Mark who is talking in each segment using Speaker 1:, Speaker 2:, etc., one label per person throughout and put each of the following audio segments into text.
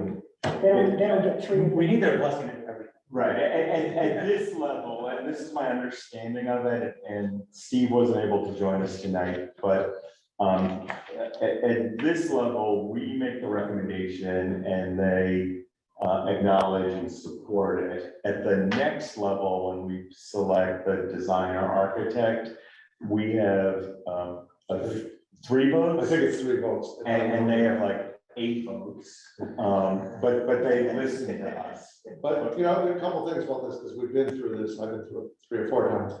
Speaker 1: They don't, they don't get treated.
Speaker 2: We need their blessing in everything.
Speaker 3: Right, and, and at this level, and this is my understanding of it, and Steve wasn't able to join us tonight, but um, at, at this level, we make the recommendation and they uh, acknowledge and support it. At the next level, when we select the designer architect, we have um, a- three votes.
Speaker 4: I think it's three votes.
Speaker 3: And, and they have like eight votes, um, but, but they listen to us.
Speaker 4: But, you know, there are a couple things about this, because we've been through this, I've been through it three or four times.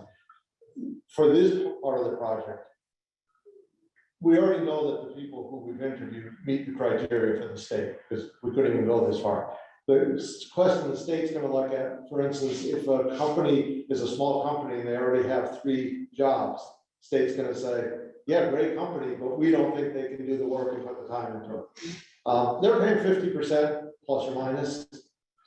Speaker 4: For this part of the project, we already know that the people who we've interviewed meet the criteria for the state, because we couldn't even go this far. The s- question the state's gonna look at, for instance, if a company is a small company and they already have three jobs, state's gonna say, yeah, great company, but we don't think they can do the work and put the time into it. Uh, they're paying fifty percent plus or minus,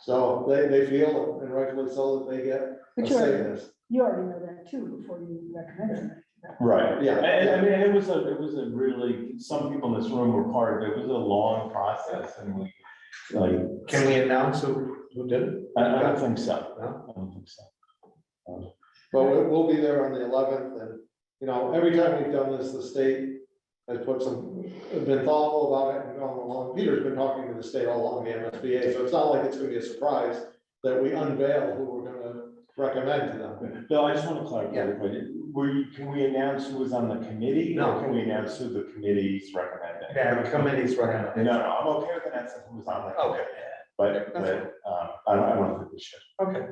Speaker 4: so they, they feel, and rightfully so, that they get a
Speaker 1: But you
Speaker 4: say in
Speaker 1: already,
Speaker 4: this.
Speaker 1: you already know that too before you recommend it.
Speaker 3: Right,
Speaker 4: Yeah.
Speaker 3: yeah, and, and I mean, it was a, it was a really, some people in this room were part of it, it was a long process and we, like,
Speaker 5: Can we announce who, who did it?
Speaker 3: I, I don't think so.
Speaker 5: No?
Speaker 3: I don't think so.
Speaker 4: But we- we'll be there on the eleventh, and, you know, every time we've done this, the state has put some, has been thoughtful about it and gone along. Peter's been talking to the state all along the MSBA, so it's not like it's gonna be a surprise that we unveil who we're gonna recommend to them.
Speaker 3: Bill, I just want to clarify, the point. were you, can we announce who was on the committee?
Speaker 5: No.
Speaker 3: Can we announce who the committee's recommending?
Speaker 5: Yeah, the committee's
Speaker 3: No,
Speaker 5: recommendation.
Speaker 3: no, I'm okay with announcing who was on the.
Speaker 5: Okay.
Speaker 3: committee, But, but, um, I don't, I don't think we should.
Speaker 5: Okay.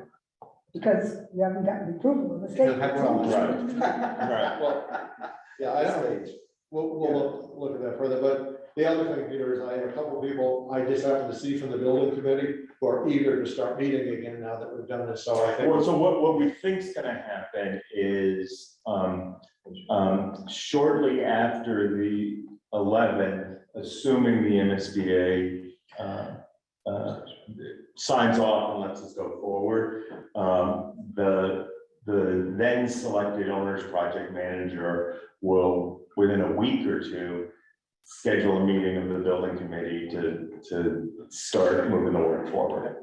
Speaker 1: Because you haven't gotten the approval of the state.
Speaker 5: You'll have
Speaker 3: to- Right.
Speaker 4: Well, yeah, I don't, we'll, we'll look, look at that further, but the other thing, Peter, is I have a couple of people I just happened to see from the building committee who are eager to start meeting again now that we've done this, so I think.
Speaker 3: Well, so what, what we think's gonna happen is, um, um, shortly after the eleventh, assuming the MSBA, uh, uh, signs off and lets us go forward, um, the, the then selected owner's project manager will, within a week or two, schedule a meeting of the building committee to, to start moving the work forward.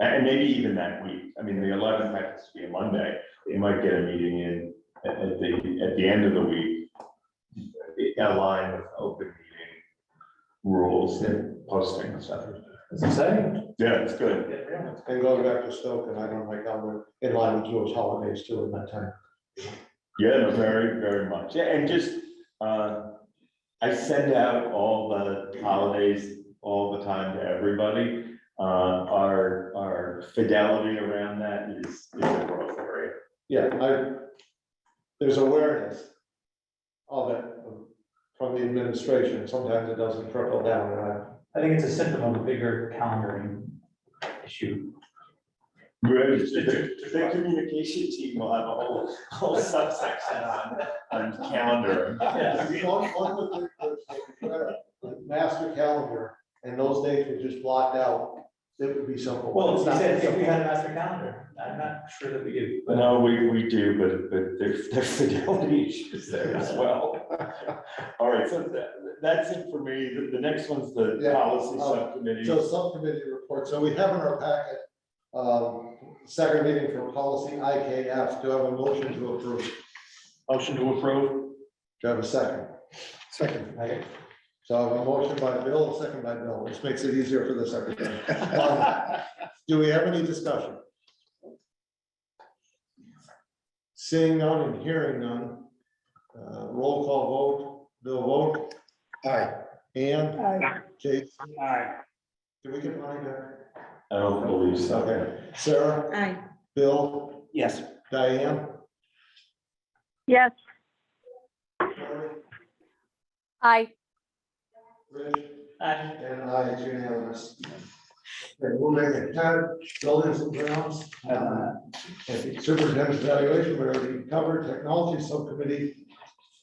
Speaker 3: And and maybe even that week, I mean, the eleventh happens to be a Monday, we might get a meeting in at, at the, at the end of the week. Aligned with open meeting rules and posting and stuff.
Speaker 5: It's exciting.
Speaker 3: Yeah, it's good.
Speaker 4: And going back to Stoke, and I don't like how we're in line with Jewish holidays too in that time.
Speaker 3: Yeah, no, very, very much. Yeah, And just, uh, I send out all the holidays all the time to everybody. Uh, our, our fidelity around that is, is a growth area.
Speaker 4: Yeah, I, there's awareness of it um, from the administration. Sometimes it doesn't trickle down, and I,
Speaker 6: I think it's a symptom of a bigger calendaring issue.
Speaker 3: Good. The the communication team will have a whole, whole subsection on, on calendar.
Speaker 4: As long as the- the- the Master calendar, and those dates were just blocked out, it would be simple.
Speaker 6: Well,
Speaker 4: It's
Speaker 6: you
Speaker 4: not
Speaker 6: said if
Speaker 4: simple.
Speaker 6: we had a master calendar, I'm not sure that we do. but-
Speaker 3: No, we, we do, but, but there's, there's fidelity issues there as well. All right, so that, that's it for me. The, the next one's the
Speaker 4: Yeah. Uh,
Speaker 3: policy subcommittee.
Speaker 4: So subcommittee report, so we have in our packet, um, second meeting for policy IKF, do I have a motion to approve?
Speaker 2: Motion to approve.
Speaker 4: Do I have a second? Second. So I have a motion by Bill, a second by Bill, which makes it easier for the secretary. Um, Do we have any discussion? Seeing none and hearing none, uh, roll call vote, Bill vote. Aye. And
Speaker 1: Uh,
Speaker 4: Jake,
Speaker 2: Aye.
Speaker 4: do we get mine there?
Speaker 3: I don't believe so.
Speaker 4: Okay, Sarah,
Speaker 7: Aye.
Speaker 4: Bill,
Speaker 2: Yes.
Speaker 4: Diane,
Speaker 8: Yes,
Speaker 4: Mary,
Speaker 8: aye.
Speaker 4: Rich.
Speaker 6: I-
Speaker 4: And I, it's unanimous. Okay, we'll make it ten, buildings and grounds. uh, Superintendent's evaluation, we already covered, technology subcommittee,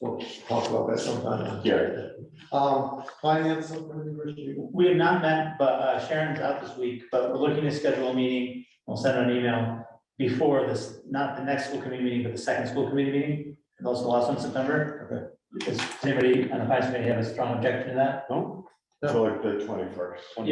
Speaker 4: we'll talk about that sometime.
Speaker 3: Yeah.
Speaker 4: Um, finance subcommittee, Rich, you-
Speaker 6: We have not met, but uh, Sharon's out this week, but we're looking to schedule a meeting. We'll send out an email before this, not the next school committee meeting, but the second school committee meeting. And also the last one in September. Does anybody on the finance committee have a strong objection to that?
Speaker 3: So like the twenty-first.